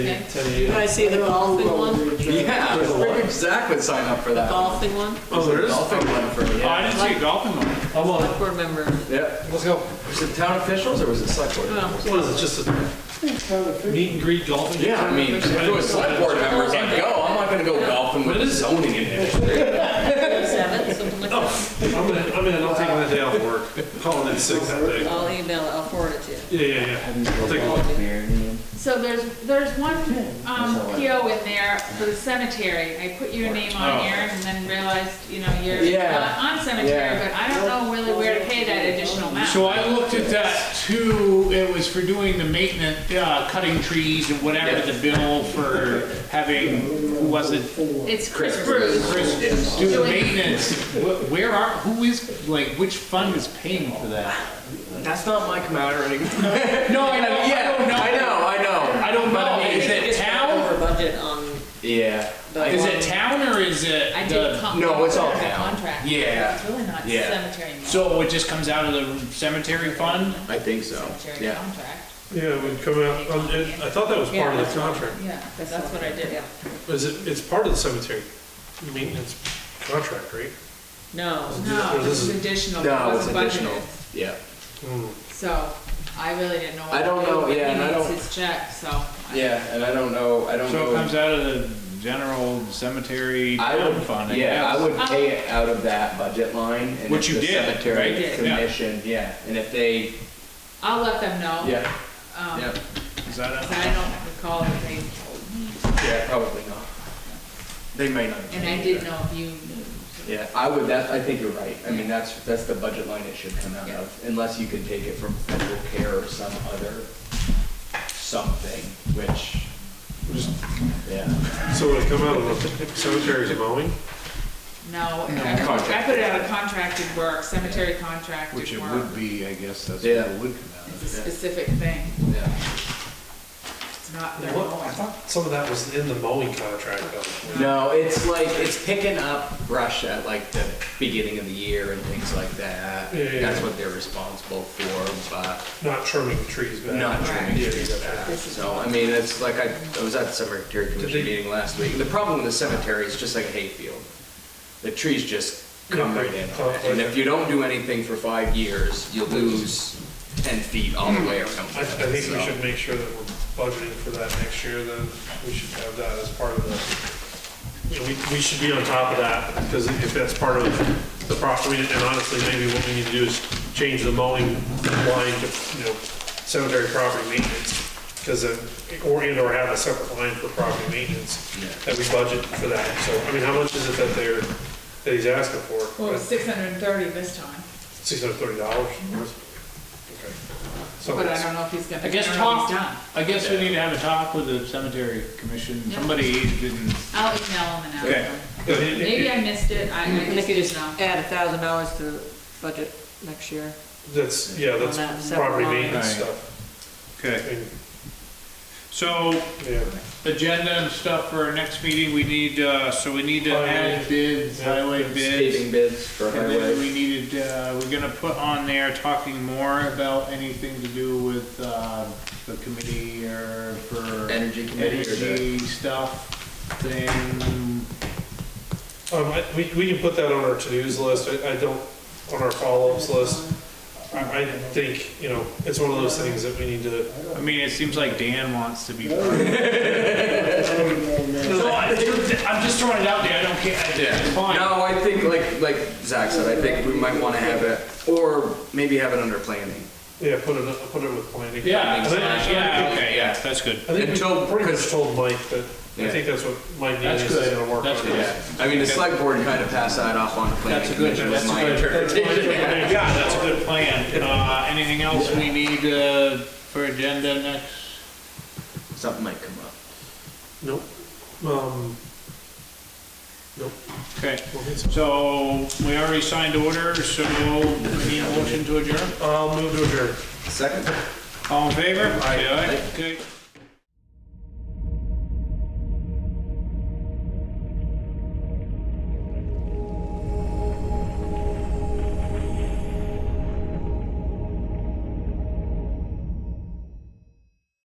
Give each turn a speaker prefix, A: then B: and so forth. A: Ten Oh,
B: Did I see the golfing one?
C: Yeah, Zach would sign up for
B: The
C: that.
B: golfing one?
A: Oh, there is?
C: Golfing one for
D: Oh, I
C: yeah.
D: didn't see a golfing one.
A: I want
B: Select board member.
C: Yeah.
A: Let's go.
C: Was it town officials or was it select board?
B: Well,
A: What is it, just a meet and greet golfing?
C: Yeah, I mean, if it was select board members, I'd go. I'm not gonna go golfing with zoning in it.
B: seven, something like that.
A: I'm in, I'm in, I'll take that day off work, calling in sick that day.
B: I'll email it, I'll forward it to you.
A: Yeah, yeah, yeah, I'll take one.
E: So there's, there's one, um, PO in there for the cemetery. I put your name on
D: Oh.
E: here and then realized, you know, you're
C: Yeah.
E: not on cemetery,
C: Yeah.
E: but I don't know really where to pay that additional
D: So
E: amount.
D: I looked at that too, it was for doing the maintenance, uh, cutting trees and whatever the bill for having, who was it?
E: It's Chris Bruce.
D: Chris do the maintenance, Wh- where are, who is, like, which fund is paying for that?
C: That's not my commodity.
D: No, I don't,
C: Yeah, I know, I know.
D: I don't
C: But
D: know,
C: mean,
D: is it
B: Just got
D: town,
B: Over budget on,
C: Yeah. I-
D: is it town or is it
E: I did
D: the,
E: come.
C: No, it's all down.
E: Contract.
C: Yeah.
E: It's really not
C: Yeah.
E: cemetery. money.
D: so it just comes out of the cemetery fund?
C: I think so.
E: Cemetery
C: Yeah.
E: contract.
A: Yeah, we'd come out, um, it- I thought that was part of the contract.
E: Yeah, that's what I did.
A: Is it, it's part of the cemetery maintenance contract, right?
B: no.
E: No,
A: Or
E: it
A: this is-
E: was additional.
C: No,
E: It
C: it's
E: wasn't
C: additional.
E: budgeted.
C: Yeah.
E: So I really didn't know. what
C: I don't
E: to do,
C: know,
E: but
C: yeah,
E: he
C: and I
E: needs
C: don't-
E: His check, so. I-
C: Yeah, and I don't know, I don't
D: So it comes
C: know.
D: out of the general cemetery
C: I
D: town
C: would,
D: fund, I
C: yeah, I
D: guess.
C: would pay it out of that budget line and
D: Which
C: if
D: you
C: the
D: did,
B: right?
C: cemetery
B: Yeah.
C: commission, yeah. And if they,
E: I'll let them know.
C: yeah,
E: um,
C: yeah,
D: 'Cause I don't-
E: 'cause I don't recall that they told me.
C: yeah, probably not. They may not.
E: And I did know if you knew.
C: Yeah, I would, that, I think you're right. I mean, that's, that's the budget line it should come out of, unless you can take it from federal care or some other something, which, yeah.
A: So would it come out of the cemetery's mowing?
E: No, I I put it out of contracted work, cemetery contracted work.
F: Which it would be, I guess, that's what
C: Yeah.
F: it would come out of.
E: It's a specific thing,
C: Yeah.
E: it's not their
A: What, I
E: own.
A: thought some of that was in the mowing contract though.
C: No, it's like, it's picking up brush at like the beginning of the year and things like that.
A: Yeah, yeah,
C: That's
A: yeah.
C: what they're responsible for, but
A: Not trimming trees back.
C: not trimming
A: Yeah,
C: trees
A: yeah.
C: back. So, I mean, it's like, I, I was at the cemetery commission
A: they-
C: meeting last week, and the problem with the cemetery is just like a hayfield. The trees just come right in, on it. and if you don't do anything for five years, you lose ten feet all the way around.
A: Hmm. I, I think we should make sure that we're budgeting for that next year, then we should have that as part of the, you know, we, we should be on top of that, because if that's part of the property, and honestly, maybe what we need to do is change the mowing line to, you know, cemetery property maintenance, because then, or, and or have a separate line for property maintenance, that we budget for that, so, I mean, how much is it that they're, that he's asking for?
E: Well, it was six hundred and thirty this time,
A: Six hundred thirty dollars? Okay. So
E: Mhm. but I
A: it's-
E: don't know if he's gonna, I
D: I
E: don't
D: guess
E: know if
D: talk,
E: he's done.
D: I guess we need to have a talk with the cemetery commission,
E: Yeah.
D: somebody didn't,
E: I'll email him and ask
D: Okay.
E: him.
A: Yeah, it- it-
E: Maybe I missed it, I, I
B: And they
E: just
B: could
E: didn't
B: just
E: know.
B: add a thousand dollars to budget next year.
A: That's, yeah, that's
B: On that separate
A: property
B: line.
A: maintenance
D: Right.
A: stuff. I
D: okay.
A: mean,
D: So,
A: Yeah,
D: agenda and stuff for our next meeting, we need, uh, so we need to
A: Highway.
D: add bids,
A: Yeah.
D: highway bids.
C: Paving bids for
D: And then
C: highway.
D: we needed, uh, we're gonna put on there talking more about anything to do with, uh, the committee or for
C: Energy committee or the-
D: energy stuff thing.
A: um, I, we, we can put that on our to-dos list, I, I don't, on our follow-ups list. I, I think, you know, it's one of those things that we need to,
D: I mean, it seems like Dan wants to be part of it.
C: So
D: So I,
C: I-
D: I'm just throwing it out there. I don't care. It's fine.
C: No, I think like, like Zach said, I think we might wanna have it, or maybe have it under planning.
A: yeah, put it, put it with planning.
D: Yeah.
A: I think-
D: Yeah. Okay. Yeah. That's good.
A: I think
C: Until-
A: we pretty much
C: 'cause-
A: told Mike that, I
C: Yeah.
A: think that's what Mike
D: That's
A: needs is
D: good.
A: gonna work on.
D: That's good.
C: Yeah, I mean, the select board kinda passed that off on the
D: That's
C: planning
D: a good-
C: commission, was
D: that's a
C: my
D: good-
C: interpretation.
D: Yeah. That's a good plan. Uh, anything else we need uh, for agenda next?
C: Something might come up.
A: Nope, um, nope,
D: Okay.
A: we'll get some.
D: So we already signed order. So we need a motion to adjourn.
A: I'll move to adjourn.
C: Second?
D: All in favor? Aye.
C: Aye.
D: Okay.